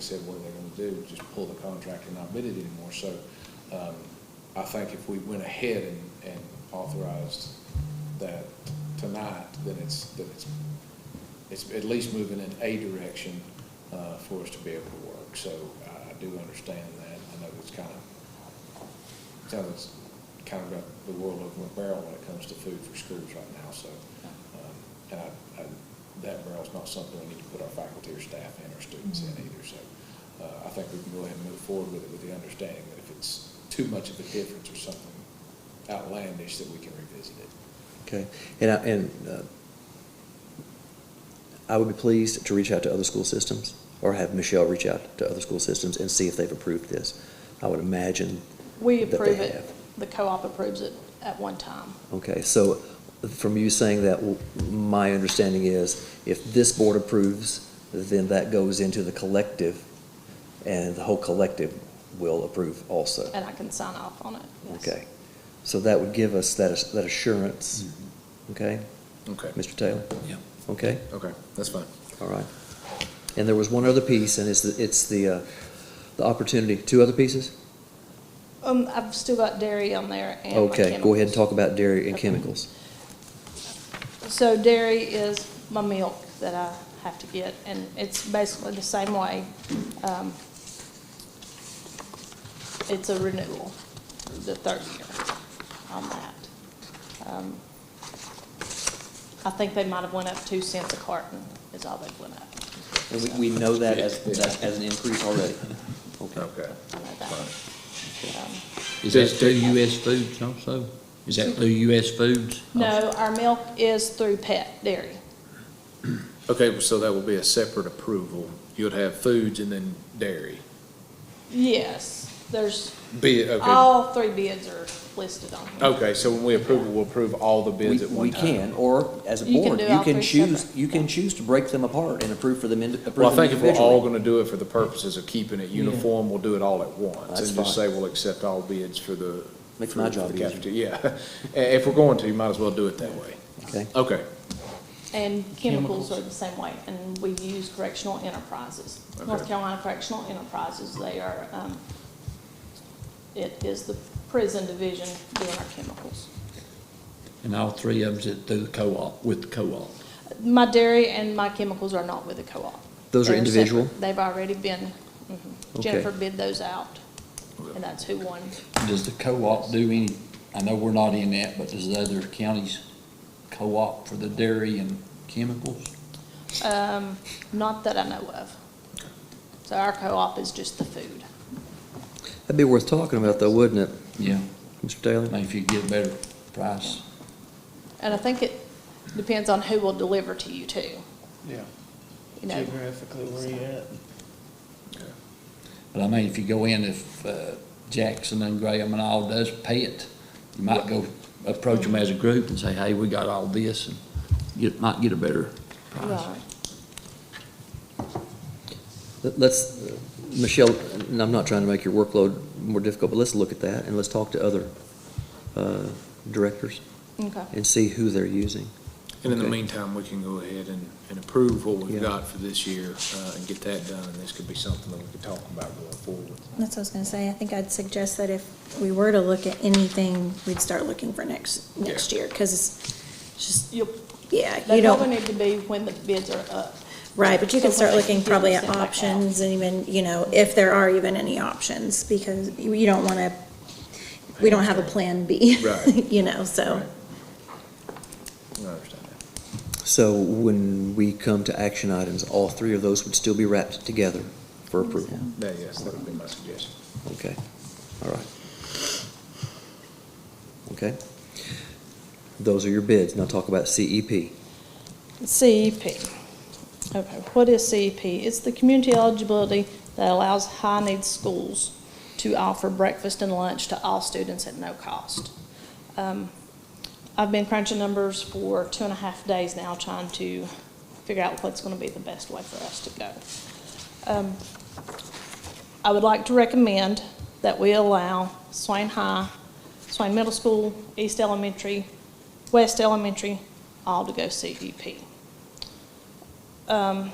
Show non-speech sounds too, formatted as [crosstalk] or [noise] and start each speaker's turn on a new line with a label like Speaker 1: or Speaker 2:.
Speaker 1: said, what are they gonna do? Just pull the contract and not bid it anymore. So, um, I think if we went ahead and, and authorized that tonight, then it's, then it's, it's at least moving in a direction, uh, for us to be able to work. So I, I do understand that. I know it's kind of, kind of, it's kind of got the world over a barrel when it comes to food for schools right now, so. um, And I, I, that barrel's not something we need to put our faculty or staff in or students in either, so. Uh, I think we can go ahead and move forward with it with the understanding that if it's too much of a difference or something outlandish, that we can revisit it.
Speaker 2: Okay, and I, and, uh, I would be pleased to reach out to other school systems, or have Michelle reach out to other school systems and see if they've approved this. I would imagine
Speaker 3: We
Speaker 2: that they
Speaker 3: approve it,
Speaker 2: have.
Speaker 3: the co-op approves it at one time.
Speaker 2: Okay, so from you saying that, w- my understanding is if this board approves, then that goes into the collective, and the whole collective will approve also.
Speaker 3: And I can sign off on it. yes.
Speaker 2: Okay, so that would give us that, ass- that assurance, okay?
Speaker 1: Okay.
Speaker 2: Mr. Taylor?
Speaker 1: Yeah.
Speaker 2: Okay?
Speaker 1: Okay, that's fine.
Speaker 2: All right. And there was one other piece, and it's, the- it's the, uh, the opportunity, two other pieces?
Speaker 3: Um, I've still got dairy on there and my
Speaker 2: Okay, go ahead
Speaker 3: chemicals.
Speaker 2: and talk about dairy and
Speaker 3: Okay.
Speaker 2: chemicals.
Speaker 3: So dairy is my milk that I have to get, and it's basically the same way. Um, It's a renewal, the third year on that. Um, I think they might have went up two cents a carton is all they've went up.
Speaker 2: And we, we know that as, that as an increase already. Okay.
Speaker 3: I know that. Um,
Speaker 4: Is that through US Foods also? Is that through US Foods?
Speaker 3: No, our milk is through pet dairy.
Speaker 1: Okay, well, so that will be a separate approval. You would have foods and then dairy.
Speaker 3: Yes, there's,
Speaker 1: Be,
Speaker 2: Oh.
Speaker 1: okay.
Speaker 3: all three bids are listed on here.
Speaker 1: Okay, so when we approve, it, we'll approve all the
Speaker 2: We,
Speaker 1: bids at
Speaker 2: we
Speaker 1: one time.
Speaker 2: can, or as a
Speaker 3: You can
Speaker 2: board,
Speaker 3: do
Speaker 2: you
Speaker 3: all
Speaker 2: can
Speaker 3: three
Speaker 2: choose,
Speaker 3: separate.
Speaker 2: you can choose to break them apart and approve for them, indi- approve
Speaker 1: Well, I
Speaker 2: them
Speaker 1: think if we're all
Speaker 2: individually.
Speaker 1: gonna do it for the purposes of keeping it uniform, we'll do it all at once.
Speaker 2: That's
Speaker 1: And just say
Speaker 2: fine.
Speaker 1: we'll accept all bids for the.
Speaker 2: Makes
Speaker 1: for-
Speaker 2: my
Speaker 1: for the
Speaker 2: job easier.
Speaker 1: cafeteria. Yeah, [laughs] Eh, if we're going to, you might as well do it that way.
Speaker 2: Okay,
Speaker 1: Okay,
Speaker 3: And chemicals are the same way, and we use correctional enterprises. North
Speaker 1: Okay.
Speaker 3: Carolina Correctional Enterprises, they are, um, it is the prison division doing our chemicals.
Speaker 4: And all three of them is through the co-op, with the co-op?
Speaker 3: My dairy and my chemicals are not with the co-op.
Speaker 2: Those are
Speaker 3: They're
Speaker 2: individual?
Speaker 3: separate. They've already been, mhm.
Speaker 2: Okay.
Speaker 3: Jennifer bid those out, and that's who won.
Speaker 4: Does the co-op do any, I know we're not in that, but does the other counties co-op for the dairy and chemicals?
Speaker 3: Um, not that I know of. So our co-op is just the food.
Speaker 2: that'd be worth talking about though, wouldn't it,
Speaker 4: Yeah,
Speaker 2: Mr.
Speaker 4: I
Speaker 2: Taylor?
Speaker 4: mean, if you get a better price.
Speaker 3: And I think it depends on who will deliver to you too,
Speaker 5: Yeah,
Speaker 3: you know.
Speaker 5: geographically where you at.
Speaker 4: But I mean, if you go in, if uh, Jackson and Graham and all does pay it, you might go approach them as a group and say, hey, we got all this, and you might get a better price.
Speaker 3: Right.
Speaker 2: Let- Let's, uh, Michelle, and I'm not trying to make your workload more difficult, but let's look at that and let's talk to other, uh, directors
Speaker 3: Okay.
Speaker 2: and see who they're using.
Speaker 1: and in the
Speaker 2: Okay.
Speaker 1: meantime, we can go ahead and, and approve what we've
Speaker 2: Yeah.
Speaker 1: got for this year, uh, and get that done, and this could be something that we could talk about going forward.
Speaker 6: That's what I was gonna say. I think I'd suggest that if we were to look at anything, we'd start looking for next, next year, because it's just,
Speaker 3: You'll,
Speaker 6: yeah,
Speaker 3: they
Speaker 6: you
Speaker 3: probably
Speaker 6: don't,
Speaker 3: need to be when the bids are up.
Speaker 6: right, but you can
Speaker 3: So
Speaker 6: start
Speaker 3: when they
Speaker 6: looking
Speaker 3: do
Speaker 6: probably at
Speaker 3: send back out.
Speaker 6: options and even, you know, if there are even any options, because you you don't wanna, we don't have a plan B.
Speaker 1: Right.
Speaker 6: [laughs] You know, so,
Speaker 1: Right. I understand that.
Speaker 2: So when we come to action items, all three of those would still be wrapped together for approval?
Speaker 1: That, yes, that would be my suggestion.
Speaker 2: Okay, all right. Okay. Those are your bids. Now talk about E CEP.
Speaker 3: CEP. E Okay, what is CEP? It's the community eligibility that allows high-need schools to offer breakfast and lunch to all students at no cost. Um, I've been crunching numbers for two and a half days now, trying to figure out what's gonna be the best way for us to go. Um, I would like to recommend that we allow Swain High, Swain Middle School, East Elementary, E West Elementary, all to go CEP. Um,